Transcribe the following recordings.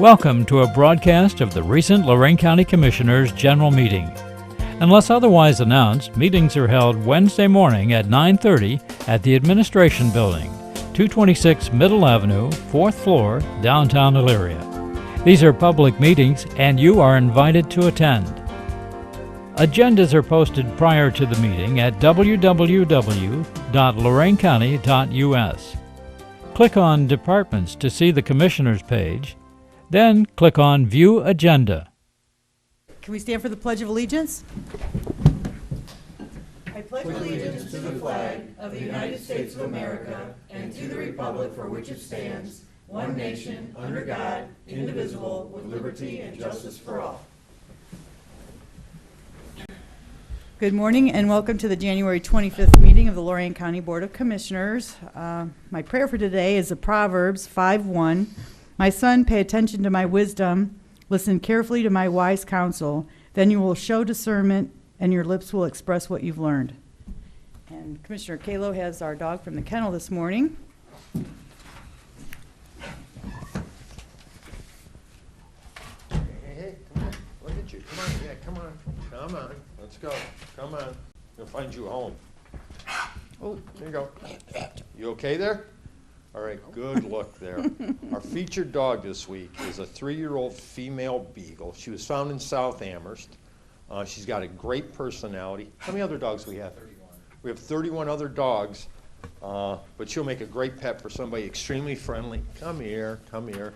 Welcome to a broadcast of the recent Lorraine County Commissioners' General Meeting. Unless otherwise announced, meetings are held Wednesday morning at 9:30 at the Administration Building, 226 Middle Avenue, 4th floor, downtown Elyria. These are public meetings and you are invited to attend. Agendas are posted prior to the meeting at www.loraincounty.us. Click on Departments to see the Commissioners page, then click on View Agenda. Can we stand for the Pledge of Allegiance? Good morning and welcome to the January 25th meeting of the Lorraine County Board of Commissioners. Uh, My prayer for today is the Proverbs 5:1. My son, pay attention to my wisdom, listen carefully to my wise counsel, then you will show discernment and your lips will express what you've learned. And Commissioner Kalo has our dog from the kennel this morning. Hey, hey, come on, look at you, come on, yeah, come on, come on, let's go, come on, we'll find you a home. Oh, there you go. You okay there? All right, good look there. Our featured dog this week is a three-year-old female beagle. She was found in South Amherst. Uh, she's got a great personality. How many other dogs we have? We have thirty-one other dogs, uh, but she'll make a great pet for somebody extremely friendly. Come here, come here.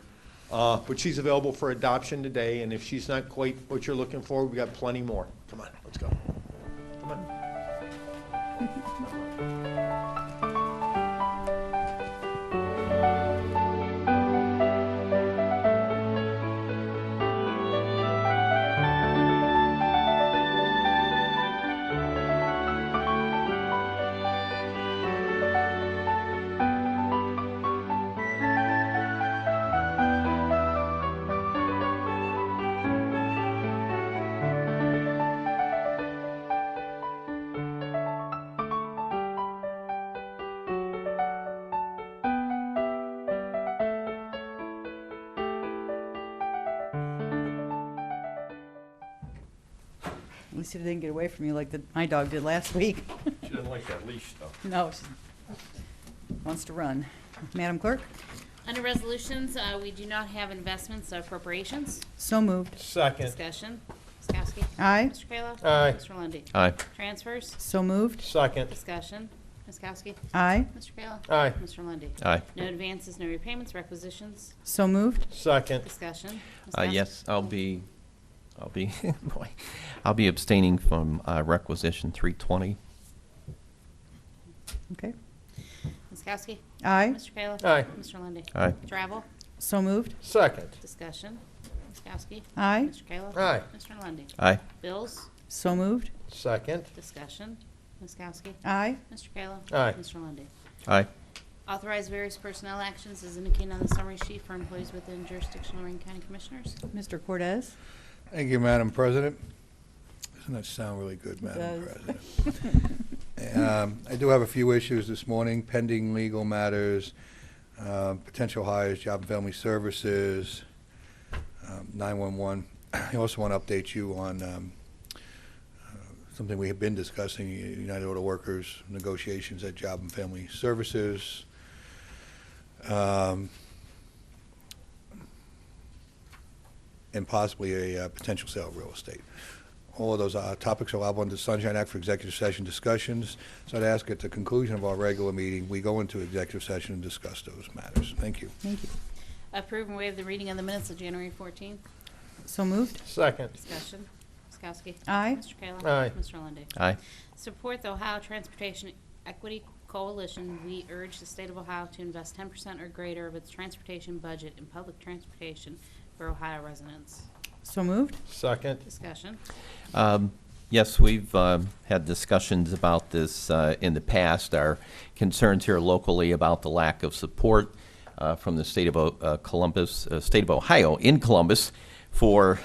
Uh, but she's available for adoption today, and if she's not quite what you're looking for, we've got plenty more. Come on, let's go. Come on. At least it didn't get away from you like the- my dog did last week. She doesn't like that leash stuff. No, she wants to run. Madam Clerk? Under resolutions, uh, we do not have investments or appropriations. So moved. Second. Discussion. Ms. Kowski. Aye. Mr. Kayla. Aye. Mr. Lundey. Aye. Transfers. So moved. Second. Discussion. Ms. Kowski. Aye. Mr. Kayla. Aye. Mr. Lundey. Aye. No advances, no repayments, requisitions. So moved. Second. Discussion. Ms. Uh, Kowski. yes, I'll be, I'll be, boy, I'll be abstaining from uh, requisition 320. Okay. Ms. Kowski. Aye. Mr. Kayla. Aye. Mr. Lundey. Aye. Travel. So moved. Second. Discussion. Ms. Kowski. Aye. Mr. Kayla. Aye. Mr. Lundey. Aye. Bills. So moved. Second. Discussion. Ms. Kowski. Aye. Mr. Kayla. Aye. Mr. Lundey. Aye. Authorize various personnel actions as indicated on the summary sheet for employees within jurisdiction of Lorraine County Commissioners. Mr. Cortez? Thank you, Madam President. Doesn't that sound really good, Madam does. President? Um, I do have a few issues this morning, pending legal matters, uh, potential hires, Job and Family Services, um, 911. I also want to update you on um, uh, something we have been discussing, U- United Auto Workers negotiations at Job and Family Services. Um, and possibly a uh, potential sale of real estate. All of those uh, topics are allowable under the Sunshine Act for executive session discussions. So I'd ask at the conclusion of our regular meeting, we go into executive session and discuss those matters. Thank you. Thank you. Approve and waive the reading of the minutes of January 14th. So moved. Second. Discussion. Ms. Kowski. Aye. Mr. Kayla. Aye. Mr. Lundey. Aye. Support the Ohio Transportation Equity Coalition. We urge the state of Ohio to invest 10% or greater of its transportation budget in public transportation for Ohio residents. So moved. Second. Discussion. Um, Yes, we've um, had discussions about this uh, in the past. Our concerns here locally about the lack of support uh, from the state of O- uh, Columbus, uh, state of Ohio in Columbus for